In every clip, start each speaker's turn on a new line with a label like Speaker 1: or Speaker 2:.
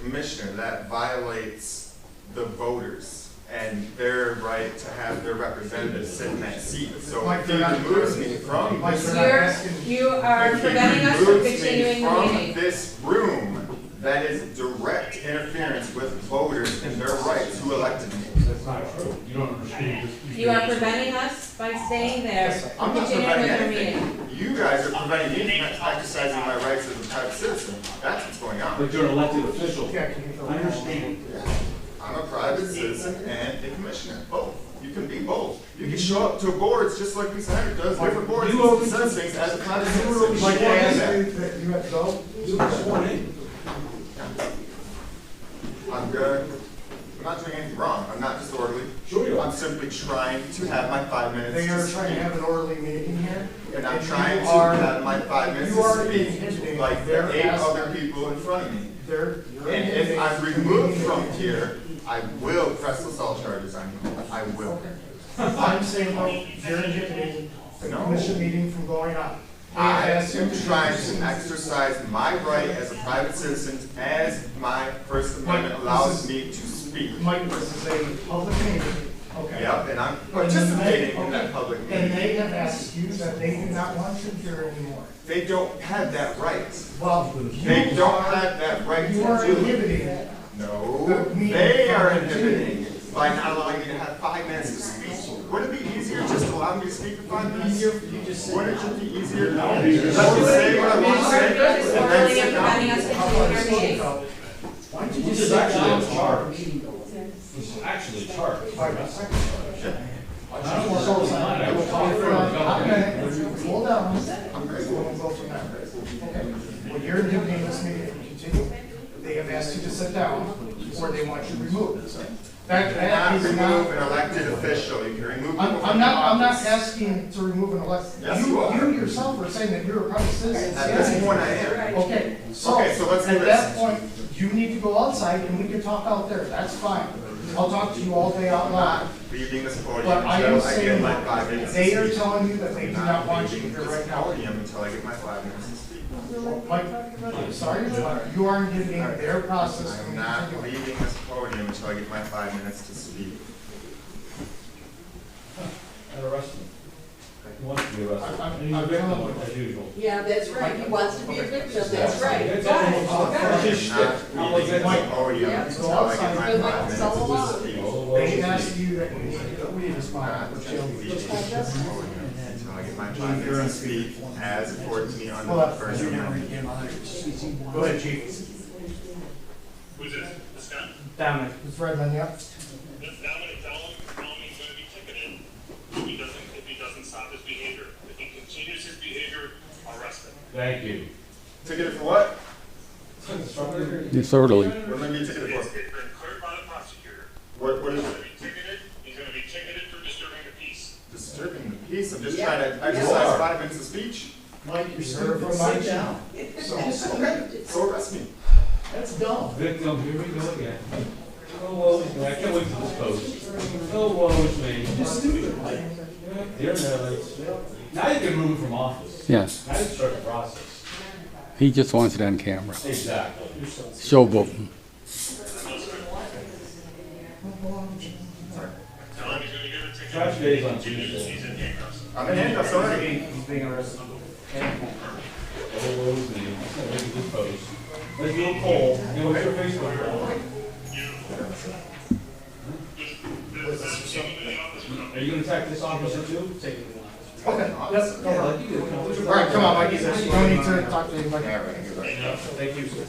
Speaker 1: commissioner, that violates the voters and their right to have their representatives sit in that seat. So
Speaker 2: Mike,
Speaker 1: if he
Speaker 2: you're not-
Speaker 1: removes me from
Speaker 2: Mike,
Speaker 1: this,
Speaker 2: you're not-
Speaker 3: You're,
Speaker 2: asking-
Speaker 3: you are
Speaker 1: if he
Speaker 3: preventing us from
Speaker 1: removes me
Speaker 3: continuing the
Speaker 1: from
Speaker 3: meeting.
Speaker 1: This room, that is direct interference with voters and their rights who elected me.
Speaker 4: That's not true. You don't understand this.
Speaker 3: You are preventing us by staying there
Speaker 1: I'm
Speaker 3: from
Speaker 1: not
Speaker 3: continuing
Speaker 1: preventing
Speaker 3: with the meeting.
Speaker 1: anything. You guys are preventing me from exercising my rights as a private citizen. That's what's going on.
Speaker 4: But you're an elected official.
Speaker 2: Yeah, can you go?
Speaker 4: I understand.
Speaker 1: I'm a private citizen and a commissioner, both. You can be both. You can show up to boards, just like Lisa Hendrick does, different boards,
Speaker 4: You open-
Speaker 1: and says things as a private
Speaker 2: You were
Speaker 1: citizen.
Speaker 2: sworn
Speaker 4: Like,
Speaker 1: You can do that.
Speaker 2: in that you had to go?
Speaker 4: You were sworn in.
Speaker 1: I'm good. I'm not doing anything wrong. I'm not disorderly.
Speaker 4: Sure you are.
Speaker 1: I'm simply trying to have my five minutes
Speaker 2: They
Speaker 1: to
Speaker 2: are trying to
Speaker 1: speak.
Speaker 2: have an orderly meeting here.
Speaker 1: And I'm
Speaker 2: you
Speaker 1: trying to
Speaker 2: are-
Speaker 1: have my five minutes
Speaker 2: you are
Speaker 1: to speak,
Speaker 2: intimidating
Speaker 1: like
Speaker 2: their
Speaker 1: the eight other
Speaker 2: aspect.
Speaker 1: people in front of me.
Speaker 2: They're, you're.
Speaker 1: And if I'm
Speaker 2: intimidating.
Speaker 1: removed from here, I will press assault charges on you. I will.
Speaker 2: I'm saying, well, you're intimidating the
Speaker 1: No.
Speaker 2: commission meeting from going on.
Speaker 1: I
Speaker 2: And ask you
Speaker 1: am trying to exercise my right as a private citizen, as my First Amendment allows me to speak.
Speaker 2: Mike, this is a public meeting, okay?
Speaker 1: Yep, and I'm participating in that public
Speaker 2: And
Speaker 1: meeting.
Speaker 2: they have asked you that they do not want you here anymore.
Speaker 1: They don't have that right.
Speaker 2: Well,
Speaker 1: They
Speaker 2: you
Speaker 1: don't
Speaker 2: are,
Speaker 1: have that right to
Speaker 2: you are
Speaker 1: do it.
Speaker 2: inhibiting it.
Speaker 1: No, they are inhibiting it by not allowing me to have five minutes to speak. Wouldn't it be easier just to allow me to speak for five minutes? Wouldn't it be easier? Let me say what I want to say.
Speaker 3: You're disorderly and
Speaker 1: and then sit
Speaker 3: preventing
Speaker 1: down.
Speaker 3: us from continuing our meeting.
Speaker 2: Why don't you
Speaker 4: Which
Speaker 2: just
Speaker 4: is
Speaker 2: sit down?
Speaker 4: actually a charge. This is actually a charge.
Speaker 2: Five seconds.
Speaker 4: I don't want to lie. I will talk for
Speaker 2: Okay, hold on.
Speaker 1: I'm
Speaker 2: We'll
Speaker 1: great.
Speaker 2: go from there. Well, you're inhibiting this meeting from continuing. They have asked you to sit down, or they want you removed. That, that
Speaker 1: Not
Speaker 2: is
Speaker 1: remove
Speaker 2: not,
Speaker 1: an elected official, you can remove.
Speaker 2: I'm,
Speaker 1: people
Speaker 2: I'm
Speaker 1: from
Speaker 2: not, I'm not
Speaker 1: office.
Speaker 2: asking to remove an elected.
Speaker 1: Yes, you are.
Speaker 2: You yourself are saying that you're a private citizen.
Speaker 1: At this point, I am.
Speaker 2: Okay, so,
Speaker 1: Okay, so let's do
Speaker 2: at that
Speaker 1: this.
Speaker 2: point, you need to go outside and we can talk out there, that's fine. I'll talk to you all day out loud.
Speaker 1: Leaving this podium
Speaker 2: But I am
Speaker 1: until I get
Speaker 2: saying,
Speaker 1: my five minutes.
Speaker 2: they
Speaker 1: to
Speaker 2: are
Speaker 1: speak.
Speaker 2: telling you that they do not want you
Speaker 1: leaving
Speaker 2: here
Speaker 1: this
Speaker 2: right now.
Speaker 1: Podium until I get my five minutes to speak.
Speaker 2: Mike, I'm sorry, but you are inhibiting their process
Speaker 1: I'm
Speaker 2: from
Speaker 1: not
Speaker 2: continuing.
Speaker 1: leaving this podium until I get my five minutes to speak.
Speaker 4: And arrest him. He wants to be arrested.
Speaker 2: I- I'm-
Speaker 4: And he's a
Speaker 2: I'm telling
Speaker 4: victim,
Speaker 2: you.
Speaker 4: as usual.
Speaker 5: Yeah, that's right, he wants to be a victim, that's right.
Speaker 4: That's all.
Speaker 2: Oh,
Speaker 1: I'm
Speaker 4: That's his shtick.
Speaker 1: not leaving this
Speaker 2: Mike,
Speaker 1: podium until I get my
Speaker 5: Good luck,
Speaker 1: five
Speaker 5: so
Speaker 1: minutes
Speaker 5: long.
Speaker 1: to speak.
Speaker 2: They asked you that we need to, we need to smile,
Speaker 1: Not
Speaker 2: but
Speaker 1: leaving
Speaker 2: you
Speaker 1: this podium until I get my five minutes to speak as accorded to me under the First Amendment.
Speaker 2: Go ahead, chief.
Speaker 6: Who's this? This guy?
Speaker 2: Dominic. It's Redmond, yep.
Speaker 6: This now I'm gonna tell him, tell him he's gonna be ticketed if he doesn't, if he doesn't stop his behavior. If he continues his behavior, arrest him.
Speaker 4: Thank you.
Speaker 1: Ticket for what?
Speaker 7: Disorderly.
Speaker 1: What am I being ticketed
Speaker 6: It's
Speaker 1: for?
Speaker 6: it's been cleared by the prosecutor.
Speaker 1: What, what
Speaker 6: He's
Speaker 1: is
Speaker 6: gonna
Speaker 1: it?
Speaker 6: be ticketed, he's gonna be ticketed for disturbing the peace.
Speaker 1: Disturbing the peace, I'm just
Speaker 5: Yeah.
Speaker 1: trying to exercise five minutes of speech.
Speaker 8: Mike, you're
Speaker 2: You're
Speaker 8: stupid,
Speaker 2: from
Speaker 8: sit
Speaker 2: my-
Speaker 8: down.
Speaker 2: So,
Speaker 1: So arrest me.
Speaker 8: That's dumb.
Speaker 4: Victim, here we go again. Oh, woe is me. I can't wait for this post. Oh, woe is me.
Speaker 8: You're stupid, Mike.
Speaker 4: Dear Nellie, now you can remove him from office.
Speaker 7: Yes,
Speaker 4: Now you start the process.
Speaker 7: he just wants it on camera.
Speaker 4: Exactly.
Speaker 7: Showboating.
Speaker 6: Tell him he's gonna get a ticket.
Speaker 4: Trash days on
Speaker 6: He's
Speaker 4: Tuesday.
Speaker 6: in handcuffs.
Speaker 1: I'm in handcuffs already.
Speaker 4: Oh, woe is me. I can't wait for this post. Let's do a poll. And what's your Facebook poll?
Speaker 6: This is in the office.
Speaker 4: Are you gonna attack this officer too?
Speaker 2: Okay, let's, go on. All right, come on, Mike, you don't need to talk to anybody.
Speaker 4: Thank you, sir.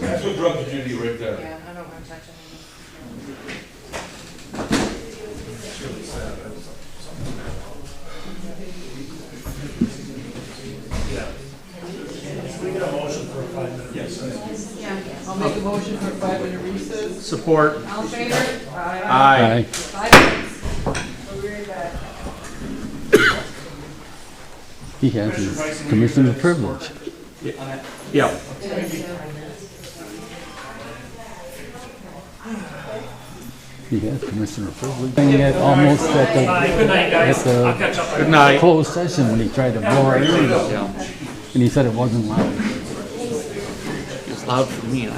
Speaker 4: That's what drug duty right there.
Speaker 3: Yeah, I don't want to touch anything.
Speaker 5: I'll make a motion for a five-minute recess.
Speaker 9: Support.
Speaker 3: All in favor? Aye.
Speaker 9: Aye.
Speaker 3: Five minutes. We'll be right back.
Speaker 7: He has his commissioner privilege.
Speaker 9: Yeah.
Speaker 7: He has commissioner privilege. Thing at almost at the,
Speaker 8: Good night,
Speaker 7: at the
Speaker 8: catch up.
Speaker 7: closed session when he tried to blow our ears out. And he said it wasn't loud.
Speaker 9: It's loud for me.